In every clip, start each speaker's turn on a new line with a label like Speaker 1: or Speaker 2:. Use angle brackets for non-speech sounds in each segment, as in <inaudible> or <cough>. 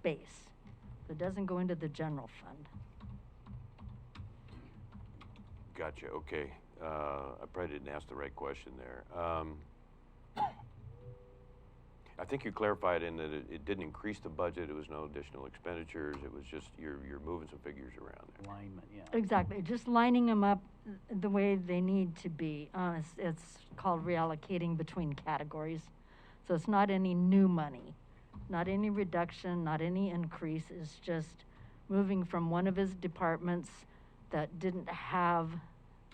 Speaker 1: space that doesn't go into the general fund.
Speaker 2: Gotcha, okay. Uh, I probably didn't ask the right question there. Um, I think you clarified in that it, it didn't increase the budget, it was no additional expenditures, it was just, you're, you're moving some figures around there.
Speaker 3: Alignment, yeah.
Speaker 1: Exactly, just lining them up the way they need to be. Uh, it's, it's called reallocating between categories. So it's not any new money, not any reduction, not any increase, it's just moving from one of his departments that didn't have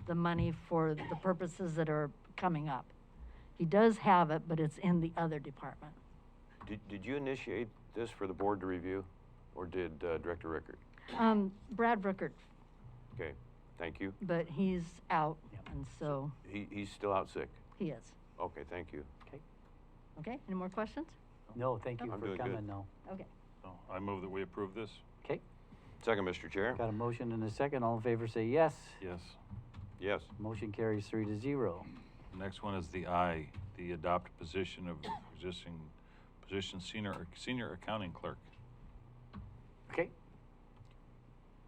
Speaker 1: the money for the purposes that are coming up. He does have it, but it's in the other department.
Speaker 2: Did, did you initiate this for the board to review, or did uh, Director Rickard?
Speaker 1: Um, Brad Ruckert,
Speaker 2: Okay, thank you.
Speaker 1: but he's out,
Speaker 3: Yep.
Speaker 1: and so
Speaker 2: He, he's still out sick.
Speaker 1: he is.
Speaker 2: Okay, thank you.
Speaker 3: Okay.
Speaker 1: Okay, any more questions?
Speaker 3: No, thank you
Speaker 2: I'm
Speaker 3: for
Speaker 2: doing good.
Speaker 3: coming, though.
Speaker 1: Okay.
Speaker 4: So I move that we approve this.
Speaker 3: Okay,
Speaker 2: Second, Mr. Chair?
Speaker 3: got a motion and a second. All in favor say yes.
Speaker 4: Yes.
Speaker 2: Yes.
Speaker 3: Motion carries three to zero.
Speaker 4: Next one is the I, the adopt position of existing position senior, senior accounting clerk.
Speaker 3: Okay,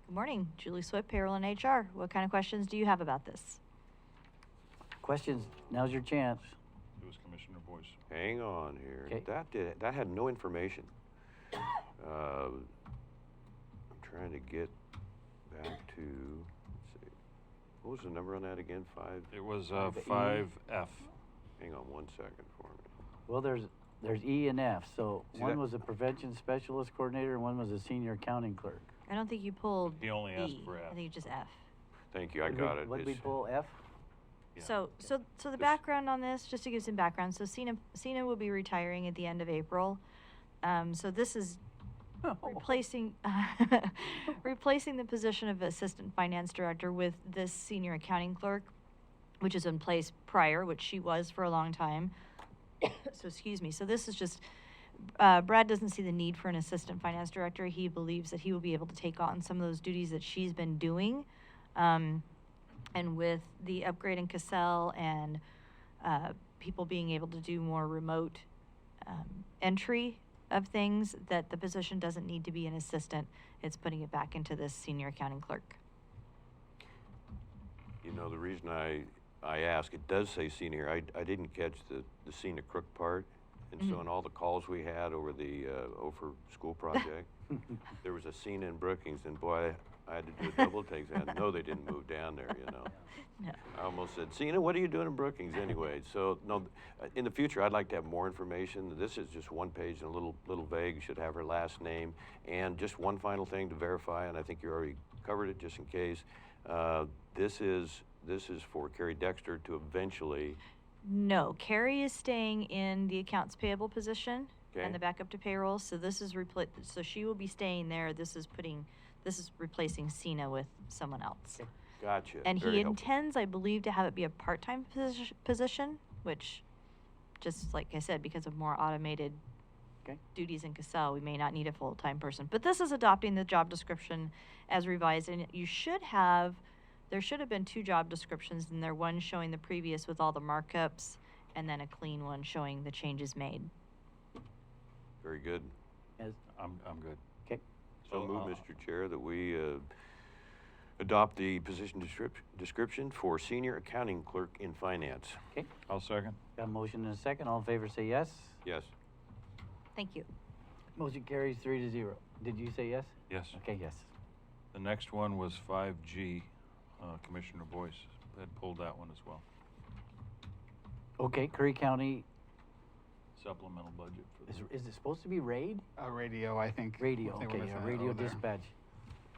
Speaker 5: Good morning, Julie Swift, payroll and HR. What kind of questions do you have about this?
Speaker 3: questions, now's your chance.
Speaker 4: It was Commissioner Boyce.
Speaker 2: Hang on here.
Speaker 3: 'Kay.
Speaker 2: That did, that had no information. Uh, I'm trying to get back to, let's see. What was the number on that again? Five?
Speaker 4: It was uh,
Speaker 5: E.
Speaker 3: Five
Speaker 4: five F.
Speaker 2: Hang on one second for me.
Speaker 3: Well, there's, there's E and F, so
Speaker 2: See
Speaker 3: one
Speaker 2: that-
Speaker 3: was a prevention specialist coordinator and one was a senior accounting clerk.
Speaker 5: I don't think you pulled
Speaker 4: He only asked
Speaker 5: E.
Speaker 4: for F.
Speaker 5: I think it's just F.
Speaker 2: Thank you, I
Speaker 3: What did we-
Speaker 2: got it.
Speaker 3: What did we
Speaker 2: It's-
Speaker 3: pull, F?
Speaker 4: Yeah.
Speaker 5: So, so, so the
Speaker 2: This-
Speaker 5: background on this, just to give some background, so Cena, Cena will be retiring at the end of April. Um, so this is
Speaker 3: Oh. <laughs>
Speaker 5: replacing, <laughs> replacing the position of Assistant Finance Director with this Senior Accounting Clerk, which is in place prior, which she was for a long time. <coughs> So, excuse me, so this is just, uh, Brad doesn't see the need for an Assistant Finance Director. He believes that he will be able to take on some of those duties that she's been doing. Um, and with the upgrade in Cassell and uh, people being able to do more remote um, entry of things, that the position doesn't need to be an assistant. It's putting it back into this senior accounting clerk.
Speaker 2: You know, the reason I, I ask, it does say senior, I, I didn't catch the, the scenic crook part. And so in all the calls we had over the, uh, Ophir School project, there was a scene in Brookings and boy, I had to do a double take. I know they didn't move down there, you know.
Speaker 5: No.
Speaker 2: I almost said, Cena, what are you doing in Brookings anyway? So, no, th- uh, in the future, I'd like to have more information. This is just one page and a little, little vague, should have her last name. And just one final thing to verify, and I think you already covered it just in case. Uh, this is, this is for Carrie Dexter to eventually,
Speaker 5: No, Carrie is staying in the accounts payable position
Speaker 2: Okay.
Speaker 5: and the backup to payroll. So this is repli- so she will be staying there. This is putting, this is replacing Cena with someone else.
Speaker 2: gotcha.
Speaker 5: And
Speaker 2: very
Speaker 5: he
Speaker 2: helpful.
Speaker 5: intends, I believe, to have it be a part-time posi- position, which, just like I said, because of more automated
Speaker 3: Okay.
Speaker 5: duties in Cassell, we may not need a full-time person. But this is adopting the job description as revised, and you should have, there should have been two job descriptions, and there one showing the previous with all the markups, and then a clean one showing the changes made.
Speaker 2: Very good.
Speaker 3: As,
Speaker 4: I'm, I'm good.
Speaker 3: okay,
Speaker 2: So
Speaker 4: So,
Speaker 2: move,
Speaker 4: uh,
Speaker 2: Mr. Chair, that we uh, adopt the position descrip- description for senior accounting clerk in finance.
Speaker 3: okay.
Speaker 4: I'll second.
Speaker 3: Got a motion and a second. All in favor say yes.
Speaker 2: Yes.
Speaker 5: Thank you.
Speaker 3: Motion carries three to zero. Did you say yes?
Speaker 4: Yes.
Speaker 3: Okay, yes.
Speaker 4: The next one was five G. Uh, Commissioner Boyce had pulled that one as well.
Speaker 3: Okay, Curry County,
Speaker 4: Supplemental budget for
Speaker 3: is,
Speaker 4: the
Speaker 3: is it supposed to be RAID?
Speaker 6: Uh, radio, I think.
Speaker 3: Radio,
Speaker 6: they were
Speaker 3: okay,
Speaker 6: missing
Speaker 3: yeah,
Speaker 6: an
Speaker 3: radio
Speaker 6: O there.
Speaker 3: dispatch.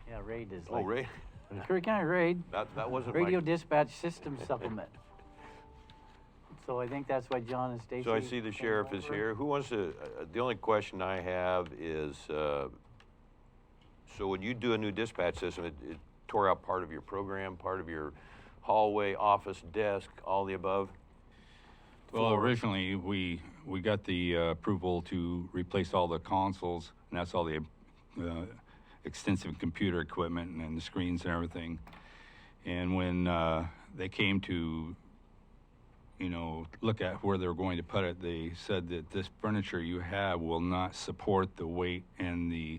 Speaker 3: Yeah, RAID is
Speaker 2: Oh,
Speaker 3: like.
Speaker 2: Ray,
Speaker 3: The Curry County RAID,
Speaker 2: that, that wasn't my.
Speaker 3: Radio Dispatch System
Speaker 2: <laughs>
Speaker 3: Supplement. So I think that's why John and Stacy.
Speaker 2: So I see the
Speaker 3: came
Speaker 2: sheriff is
Speaker 3: over.
Speaker 2: here. Who wants to, uh, the only question I have is, uh, so when you do a new dispatch system, it it tore out part of your program, part of your hallway, office, desk, all the above?
Speaker 7: Well, originally, we, we got the uh, approval to replace all the consoles, and that's all the uh, extensive computer equipment and, and the screens and everything. And when uh, they came to, you know, look at where they were going to put it, they said that this furniture you have will not support the weight and the